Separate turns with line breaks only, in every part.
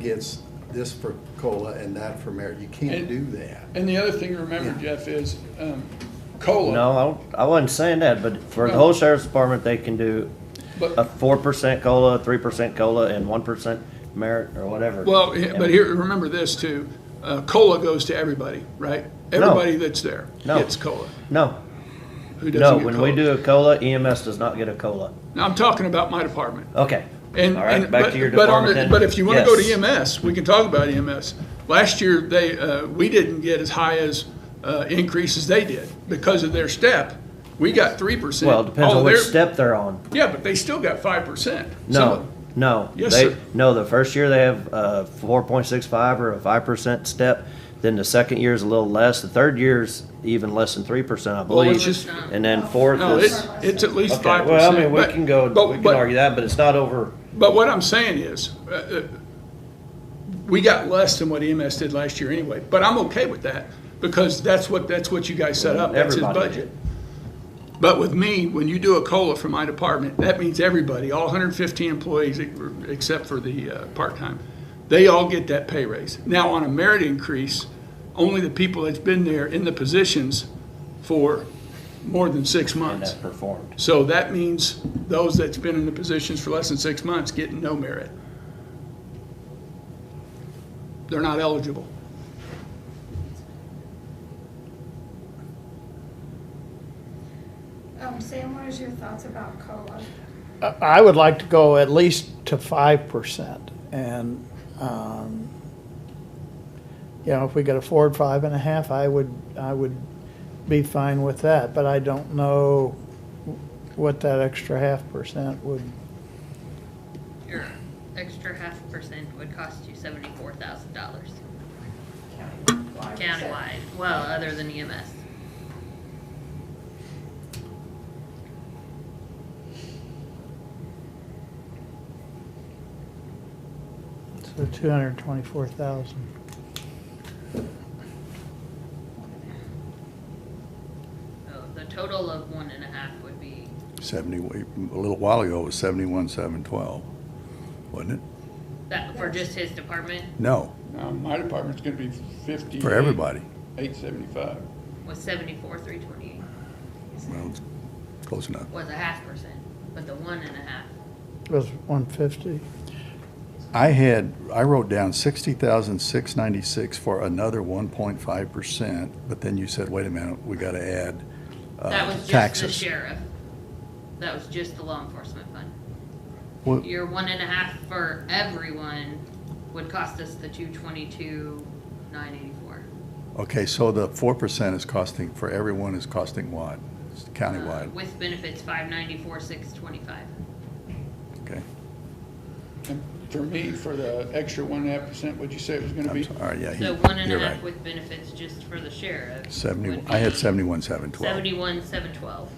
gets this for COLA and that for merit. You can't
And-
do that.
And the other thing to remember, Jeff, is um, COLA.
No, I, I wasn't saying that, but for the whole sheriff's department, they can do a
But,
four percent cola, three percent cola, and one percent merit or whatever.
well, he- but
And-
here, remember this too, uh, COLA goes to everybody, right? Everybody that's there
No.
gets COLA.
No,
Who doesn't
no,
get
when we
COLA?
do a cola, EMS does not get a cola.
Now, I'm talking about my department.
Okay.
And,
All right,
and-
back
but-
to your
but on
department
the-
then.
But if you wanna go
Yes.
to E EMS, we can talk about EMS. Last year, they, uh, we didn't get as high as, uh, increase as they did because of their step. We got three percent.
Well, it depends on which step they're on.
Yeah, but they still got five percent.
No, no.
Yes,
they,
sir.
No, the first year they have a four point six five or a five percent step. Then the second year is a little less. The third year's even less than three percent, I
it
believe.
was-
and then fourth
No,
is.
it's, it's at least
okay,
five percent.
well, I mean, we can go. we can argue that, but it's not over.
But what I'm saying is, uh, uh, we got less than what EMS did last year anyway, but I'm okay with that, because that's what, that's what you guys set up, that's his
Everybody
budget. But with me, when you do a COLA for my department, that means everybody, all 115 employees, e- except for the uh, part-time, they all get that pay raise. Now, on a merit increase, only the people that's been there in the positions for more than six
And
months.
that performed.
So that means those that's been in the positions for less than six months get no merit. They're not eligible.
Um, Sam, what is your thoughts about COLA?
I I would like to go at least to five percent and, um, you know, if we could afford five and a half, I would, I would be fine with that, but I don't know what that extra half percent would,
Your extra half percent would cost you seventy-four thousand dollars
Countywide.
countywide, well, other than E EMS.
so two hundred and twenty-four thousand.
So the total of one and a half would be,
Seventy, a little while ago, it was seventy-one, seven, twelve, wasn't it?
that, for just his department
No,
Now, my department's gonna be fifty.
for everybody.
Eight seventy-five.
was seventy-four, three twenty-eight,
Well, it's close enough.
was a half percent, but the one and a half,
Was one fifty?
I had, I wrote down sixty thousand, six ninety-six for another one point five percent, but then you said, wait a minute, we gotta add uh,
that was just the
taxes.
sheriff. That was just the law enforcement fund.
Well,
Your one and a half for everyone would cost us the two twenty-two, nine eighty-four.
Okay, so the four percent is costing, for everyone is costing what? It's Countywide,
Uh, With benefits, five ninety-four, six twenty-five. Uh,
okay?
And for me, for the extra one and a half percent, what'd you say it was gonna
I'm
be?
sorry, all right, yeah. he-
So one and
you're
a
right.
half with benefits just for the sheriff.
Seventy,
would
I had
be
seventy-one, seven, twelve.
Seventy-one, seven twelve.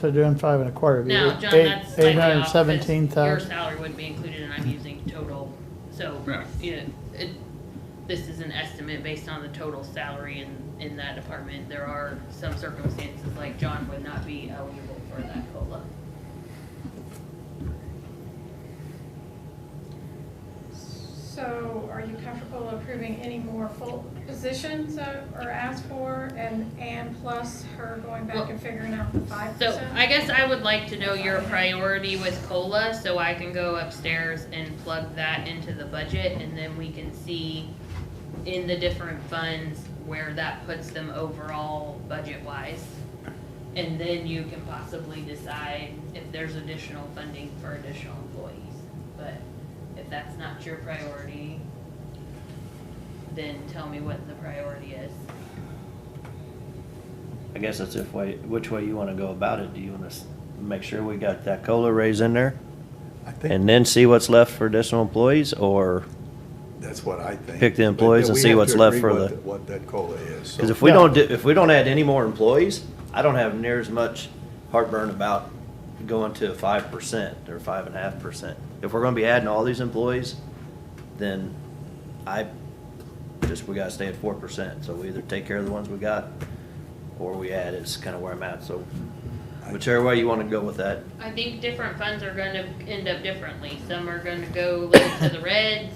So doing five and a quarter would be
Now, John,
eight,
that's
eight
slightly
hundred and
off, 'cause
seventeen
your
thousand.
salary wouldn't be included, and
Mm-hmm.
I'm using total, so,
Right.
you know, it, this is an estimate based on the total salary in, in that department. There are some circumstances, like John would not be eligible for that COLA.
So are you comfortable approving any more full positions uh, or asked for and, and plus her going back and figuring out the five
So
percent?
I guess I would like to know your priority with COLA, so I can go upstairs and plug that into the budget, and then we can see in the different funds where that puts them overall budget-wise. And then you can possibly decide if there's additional funding for additional employees. But if that's not your priority, then tell me what the priority is.
I guess that's if way, which way you wanna go about it. Do you wanna s- make sure we got that COLA raise in there?
I think
And then see what's left for additional employees, or,
That's what I think.
Pick the employees and
We
see
have
what's
to
left
agree
for
what
the-
What that COLA is. so-
cause if we
Yeah.
don't do, if we don't add any more employees, I don't have near as much heartburn about going to five percent or five and a half percent. If we're gonna be adding all these employees, then I, just, we gotta stay at four percent, so we either take care of the ones we got, or we add, is kinda where I'm at, so whichever way you wanna go with that,
I think different funds are gonna end up differently. Some are gonna go like to the red,